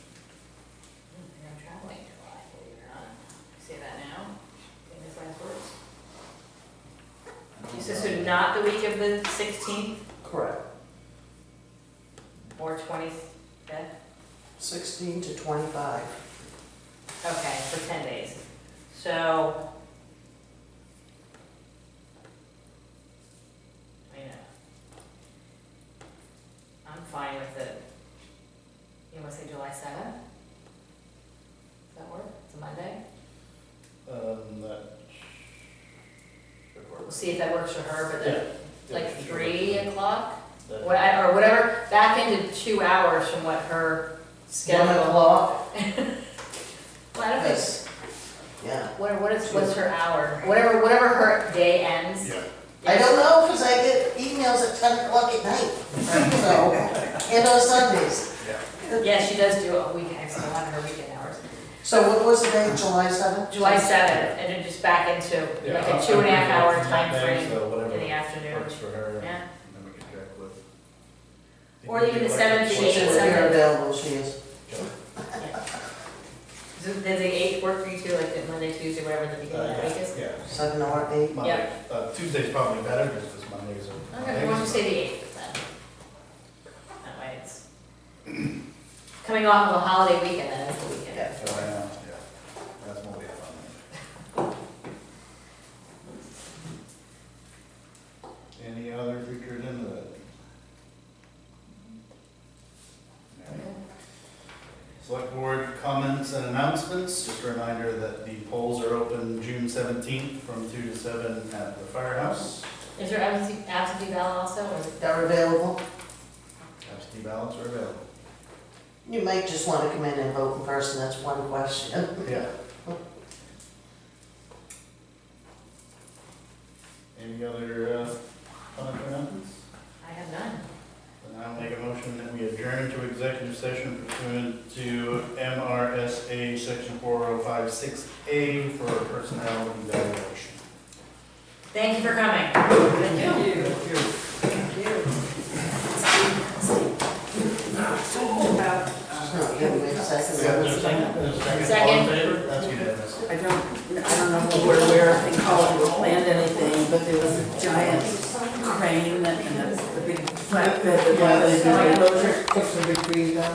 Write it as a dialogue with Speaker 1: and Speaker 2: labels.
Speaker 1: not the week of the sixteenth
Speaker 2: Correct.
Speaker 1: or twenty-fifth?
Speaker 2: 16 to 25.
Speaker 1: Okay, for ten days. So. I know. I'm fine with it. You wanna say July seventh? Does that work? It's a Monday?
Speaker 3: Um, that should work.
Speaker 1: We'll see if that works for her, but then,
Speaker 3: Yeah,
Speaker 1: like
Speaker 3: it should work.
Speaker 1: three o'clock?
Speaker 3: That-
Speaker 1: What- Or whatever, back into two hours from what her
Speaker 2: One
Speaker 1: schedule.
Speaker 2: o'clock?
Speaker 1: Well, I don't think
Speaker 2: Yes. Yeah.
Speaker 1: What, what is, what's her hour? Whatever, whatever her day ends.
Speaker 3: Yeah,
Speaker 2: I don't know, because I get emails at 10 o'clock at night, so, and on Sundays.
Speaker 1: Yeah, she does do a weekend, so one of her weekend hours.
Speaker 2: So what was the date, July 7th?
Speaker 1: July seventh, and then just back into
Speaker 3: yeah,
Speaker 1: like
Speaker 3: I'm-
Speaker 1: a two and a
Speaker 3: I'm
Speaker 1: half hour
Speaker 3: thinking
Speaker 1: time
Speaker 3: that day,
Speaker 1: frame
Speaker 3: so
Speaker 1: in the
Speaker 3: Whatever
Speaker 1: afternoon,
Speaker 3: works for her, and
Speaker 1: yeah.
Speaker 3: then we can check with.
Speaker 1: Or
Speaker 3: You can
Speaker 1: even
Speaker 3: do
Speaker 1: the
Speaker 3: like
Speaker 1: seventh, the
Speaker 2: She's
Speaker 1: eighth,
Speaker 3: fourth.
Speaker 1: Sunday.
Speaker 2: available, she is.
Speaker 1: Does does the eighth work for you too, like the Monday, Tuesday, whatever the
Speaker 3: Uh,
Speaker 1: beginning of the week is?
Speaker 3: Yeah,
Speaker 2: 7 or 8.
Speaker 3: Monday, uh, Tuesday's probably better, because this Monday's a.
Speaker 1: Okay, why don't you say the eighth then? That way it's coming off of a holiday weekend, then it's the weekend.
Speaker 2: Yeah.
Speaker 3: So, I know, yeah, that's more be fun. Any other features in the? Select board comments and announcements, just a reminder that the polls are open June seventeenth from two to seven at the firehouse.
Speaker 1: Is there absentee, absentee ballot also, or is it?
Speaker 2: They're available.
Speaker 3: Absentee ballots are available.
Speaker 2: You might just want to come in and vote in person, that's one question.
Speaker 3: Yeah. Any other, uh, comments or announcements?
Speaker 1: I have none.
Speaker 3: Then I'll make a motion that we adjourn to executive session pursuant to MRSA section four oh five six A for personnel evaluation.
Speaker 1: Thank you for coming.
Speaker 2: Thank you. She's not giving me a
Speaker 3: We have a
Speaker 2: second.
Speaker 3: second, a second, all in
Speaker 1: Second.
Speaker 3: favor? That's unanimous.
Speaker 4: I don't, I don't know if you were aware of the college or planned anything, but there was a giant crane and the the big flatbed that was going to be closure.
Speaker 2: Took some big breather.